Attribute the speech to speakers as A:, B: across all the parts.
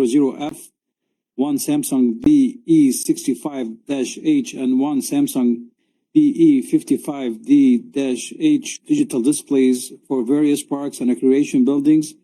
A: F, one Samsung E BE sixty-five H, and one Samsung BE fifty-five D H digital displays for various parks and recreation buildings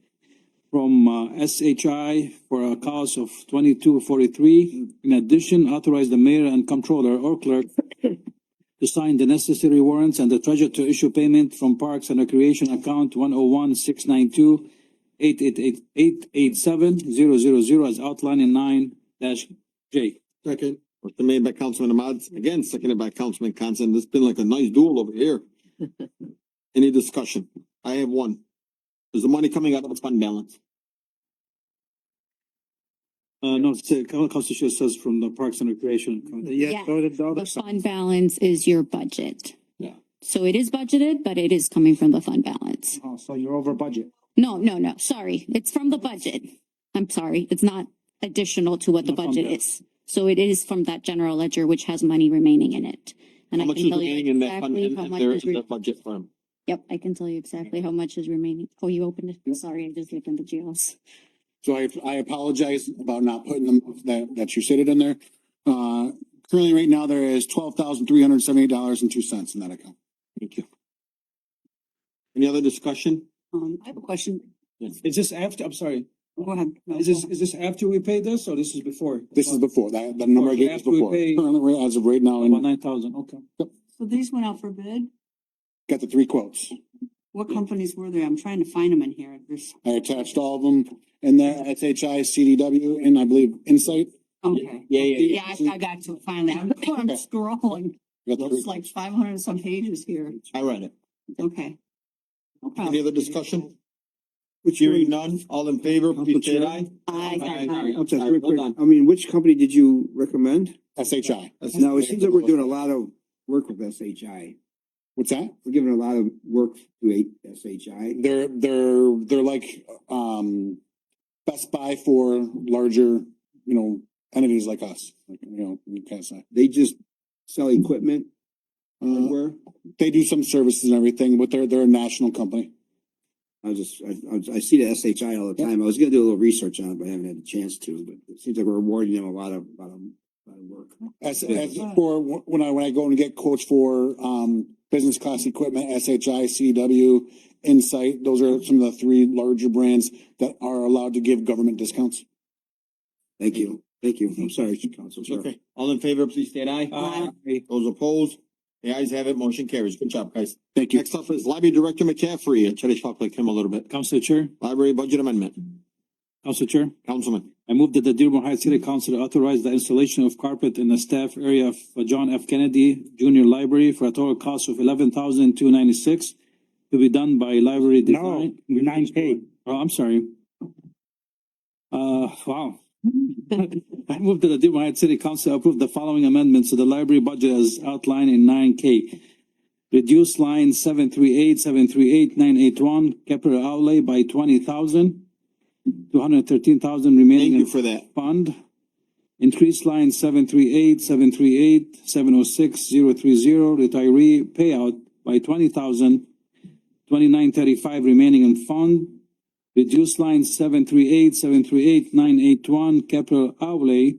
A: from uh, SHI for a cost of twenty-two forty-three. In addition, authorize the mayor and comptroller or clerk to sign the necessary warrants and the treasurer to issue payment from Parks and Recreation Account one oh one six nine two eight eight eight eight eight seven zero zero zero as outlined in nine dash J.
B: Second. Motion made by Councilman Ahmad, again, seconded by Councilman Constant. It's been like a nice duel over here. Any discussion? I have one. Is the money coming out of the fund balance?
A: Uh, no, it's, uh, Council Constitution says from the Parks and Recreation. Account.
C: Yeah.
A: go to the other
C: The
A: side.
C: fund balance is your budget.
B: Yeah.
C: So it is budgeted, but it is coming from the fund balance.
D: Oh, so you're over budget.
C: No, no, no, sorry. It's from the budget. I'm sorry. It's not additional to what the
A: Not fund
C: budget
A: balance.
C: is. So it is from that general ledger, which has money remaining in it. And
B: How
C: I
B: much
C: can
B: is
C: tell you
B: remaining in that fund,
C: exactly
B: in
C: how
B: in
C: much
B: their,
C: is
B: in
C: re-
B: their budget fund?
C: Yep, I can tell you exactly how much is remaining. Oh, you opened it. Sorry, I just opened the GLs.
E: So I, I apologize about not putting them, that, that you stated in there. Uh, currently, right now, there is twelve thousand three hundred seventy-eight dollars and two cents in that account.
B: Thank you. Any other discussion?
F: Um, I have a question.
A: Is this after, I'm sorry,
F: Go ahead.
A: is this, is this after we pay this or this is before?
E: This is before, that, the number I gave is
A: After we
E: before.
A: pay-
E: Currently, right- as of right now,
A: About
E: and
A: nine thousand, okay.
F: So these went out for bid?
E: got the three quotes.
F: What companies were there? I'm trying to find them in here. There's,
E: I attached all of them, and then SHI, CDW, and I believe Insight.
F: okay.
B: Yeah, yeah,
F: Yeah, I, I got to it finally. I'm, I'm scrolling.
E: Got the three
F: It's like five hundred and some pages here.
B: I read it.
F: Okay. No
C: Oh,
F: problem.
B: Any other discussion? Hearing none, all in favor, please say aye.
F: I
B: Aye,
F: got
B: aye.
F: it.
G: I'm sorry,
B: All right,
G: quick, Um,
B: well done.
G: quick. I mean, which company did you recommend?
E: SHI.
G: Now, it seems like we're doing a lot of work with SHI.
E: What's that?
G: We're giving a lot of work to eight SHI.
E: They're, they're, they're like, um, Best Buy for larger, you know, entities like us, like, you know, you can say.
G: They just sell equipment,
E: Uh,
G: hardware.
E: They do some services and everything, but they're, they're a national company.
G: I just, I, I- I see the SHI all the time. I was gonna do a little research on it, but I haven't had a chance to, but it seems like we're awarding them a lot of, lot of, lot of work.
E: As, as, or wh- when I, when I go and get quotes for, um, business class equipment, SHI, CW, Insight, those are some of the three larger brands that are allowed to give government discounts.
G: Thank you, thank you. I'm sorry, Council. Sure.
B: Okay, all in favor, please state aye.
A: Aye.
B: Those opposed, the ayes have it, motion carries. Good job, guys.
E: Thank you.
B: Next up is Library Director McCaffrey. I try to talk like him a little bit.
A: Council Chair,
B: Library Budget Amendment,
A: Council Chair.
B: Councilman.
A: I move that the Dearborn Heights City Council authorize the installation of carpet in the staff area of John F. Kennedy Junior Library for a total cost of eleven thousand two ninety-six to be done by library
D: No,
A: design.
D: nine K.
A: Oh, I'm sorry. Uh, wow. I move that the Dearborn Heights City Council approve the following amendments to the library budget as outlined in nine K. Reduce line seven three eight, seven three eight, nine eight one, capital outlay by twenty thousand, two hundred thirteen thousand
B: Thank
A: remaining in
B: you for that.
A: fund. Increase line seven three eight, seven three eight, seven oh six, zero three zero, retiree payout by twenty thousand, twenty-nine thirty-five remaining in fund. Reduce line seven three eight, seven three eight, nine eight one, capital outlay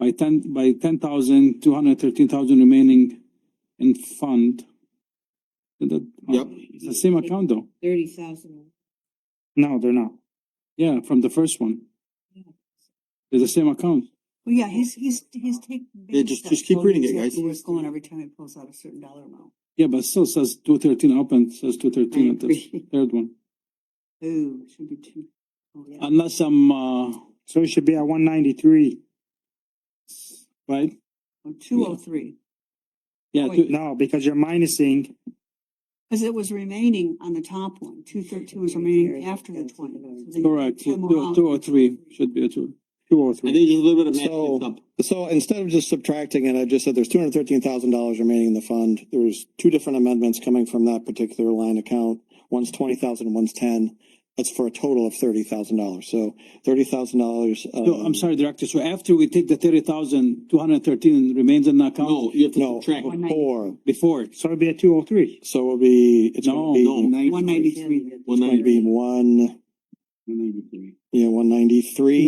A: by ten, by ten thousand, two hundred thirteen thousand remaining in fund. And that-
B: Yep.
A: It's the same account though,
F: Thirty thousand.
D: No, they're not.
A: yeah, from the first one. It's the same account.
F: Well, yeah, he's, he's, he's taking.
B: Yeah, just- just keep reading it, guys.
F: Where it's going every time it pulls out a certain dollar amount.
A: Yeah, but still says two thirteen up and says two thirteen at
F: agree.
A: the third one.
F: Ooh, it should be two. Oh, yeah.
A: Unless I'm, uh,
D: So it should be at one ninety-three.
A: right?
F: Two oh three,
A: Yeah,
F: Wait.
A: two-
D: No, because you're minusing,
F: because it was remaining on the top one. Two thirteen was remaining after the twenty. So they-
A: correct,
F: they come
A: two,
F: out-
A: two or three, should be a two.
D: two oh
B: I
D: three.
B: need just a little bit of
H: So-
B: math mixed up.
H: So instead of just subtracting it, I just said there's two hundred thirteen thousand dollars remaining in the fund. There's two different amendments coming from that particular line account. One's twenty thousand, one's ten. That's for a total of thirty thousand dollars. So thirty thousand dollars. um,
A: No, I'm sorry, Director, so after we take the thirty thousand, two hundred thirteen remains in the account
B: No, you have to
H: No,
B: subtract.
H: before.
A: before.
D: So it'd be at two oh three.
H: So it'll be, it's gonna
A: No,
H: be,
F: One ninety-three.
B: One
H: it's gonna
B: ninety.
H: be one,
G: One ninety-three.
H: yeah, one ninety-three.